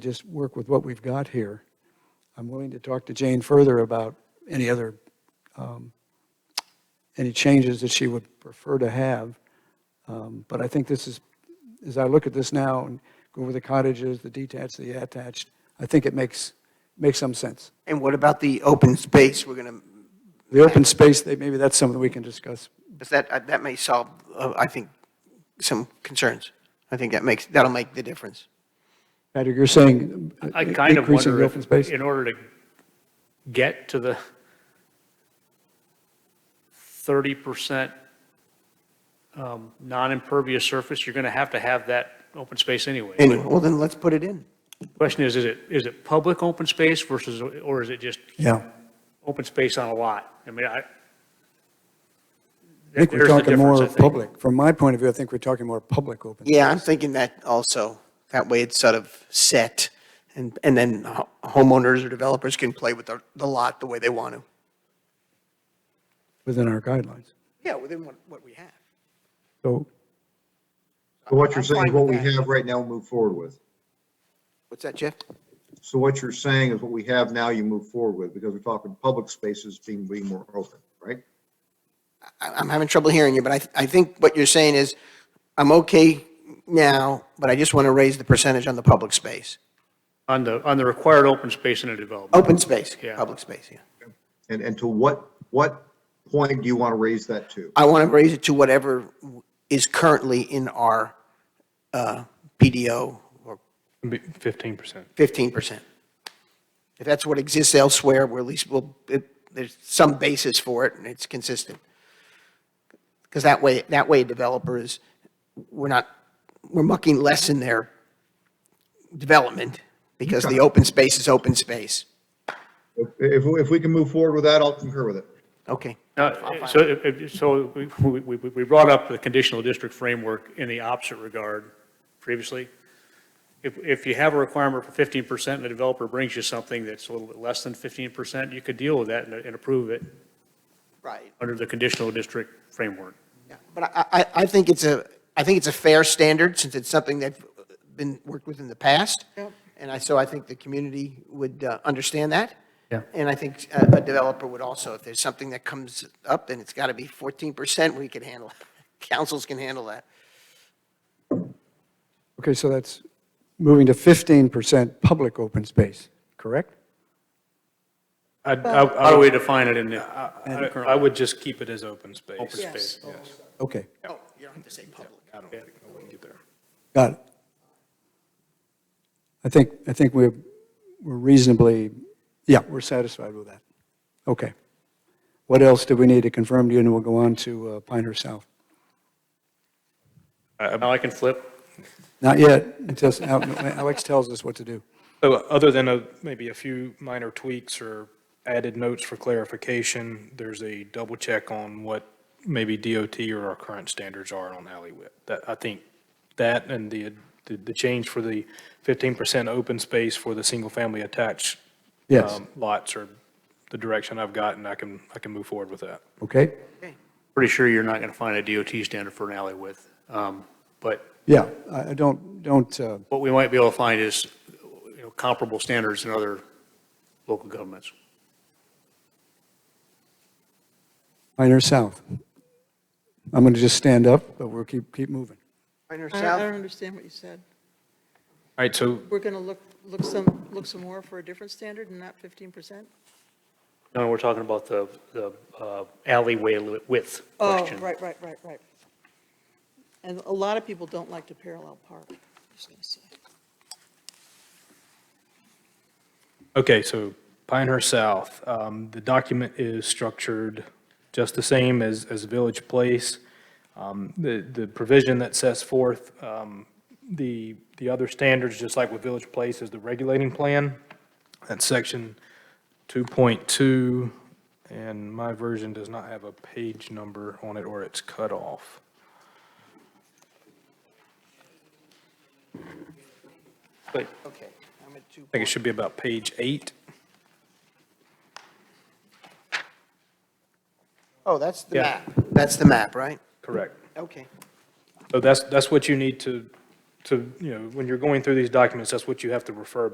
just work with what we've got here. I'm willing to talk to Jane further about any other, um, any changes that she would prefer to have. Um, But I think this is, as I look at this now and go over the cottages, the detached, the attached, I think it makes, makes some sense. And what about the open space? We're going The open space, they- maybe that's something we can discuss. to, that, that may solve, uh, I think, some concerns. I think that makes, that'll make the difference. Patrick, you're saying uh, I kind of increasing wonder the open if, space? in order to get to the thirty percent um, non-impervious surface, you're going to have to have that open space anyway. Anyway, well, then let's put it in. Question is, is it, is it public open space versus, or is it just Yeah. open space on a lot? I mean, I. I think we're there's the talking difference, more I think. public. From my point of view, I think we're talking more public open. Yeah, I'm thinking that also. That way it's sort of set, and, and then ho- homeowners or developers can play with the, the lot the way they want to. Within our guidelines. Yeah, within what, what we have. So So what you're I'm saying is fine what we with that. have right now, move forward with. What's that, Jeff? So what you're saying is what we have now, you move forward with, because we're talking public spaces being, being more open, right? I- I'm having trouble hearing you, but I, th- I think what you're saying is, I'm okay now, but I just want to raise the percentage on the public space. On the, on the required open space in a development. Oh. Open space, Yeah. public space, yeah. And, and to what, what point do you want to raise that to? I want to raise it to whatever is currently in our uh, PDO or Fifteen percent. 15%. If that's what exists elsewhere, we're at least, we'll, it- there's some basis for it and it's consistent. Because that way, that way developers, we're not, we're mucking less in their development because the open space is open space. If, if, if we can move forward with that, I'll concur with it. Okay. Uh, So, if- if- so we, we, we- we brought up the conditional district framework in the opposite regard previously. If, if you have a requirement for fifteen percent and the developer brings you something that's a little bit less than fifteen percent, you could deal with that and, and approve it Right. under the conditional district framework. Yeah, But I, I, I think it's a, I think it's a fair standard, since it's something that's been worked with in the past. And I, so I think the community would uh, understand that. Yeah. And I think uh, a a developer would also, if there's something that comes up and it's got to be fourteen percent, we can handle, councils can handle that. Okay, so that's moving to 15% public open space, correct? I, I, How do we define it in the I- I would just keep it as open space. open space? Okay, Oh, you don't have to say public. I don't think I wouldn't get there. got it. I think, I think we're we're reasonably, yeah, we're satisfied with that. Okay. What else do we need to confirm to you, and we'll go on to uh, Pinehurst South? Now I can flip. Not yet, until Alex tells us what to do. So other than a, maybe a few minor tweaks or added notes for clarification, there's a double check on what maybe DOT or our current standards are on alley width. That, I think that and the, the, the change for the fifteen percent open space for the single-family attached Yes. um, lots are the direction I've gotten. I can, I can move forward with that. Okay? Pretty sure you're not going to find a DOT standard for an alley width. Um, But Yeah, I I don't, don't, uh, what we might be able to find is, you know, comparable standards in other local governments. Pinehurst South. I'm going to just stand up, but we'll keep, keep moving. Pinehurst I don't- I don't South, understand what you said. All right, so We're going to look, look some, look some more for a different standard and not 15%? No, we're talking about the, the uh, alleyway li- width Oh, question. right, right, right, right. And a lot of people don't like to parallel park, just going to say. Okay, so Pinehurst South, um, the document is structured just the same as, as Village Place. Um, the, the provision that sets forth, um, the, the other standards, just like with Village Place, is the regulating plan. That's section two point two, and my version does not have a page number on it or it's cut off. But I okay. I'm at two. think it should be about page eight. Oh, that's the Yeah. map. That's the map, right? Correct. Okay. So that's, that's what you need to, to, you know, when you're going through these documents, that's what you have to refer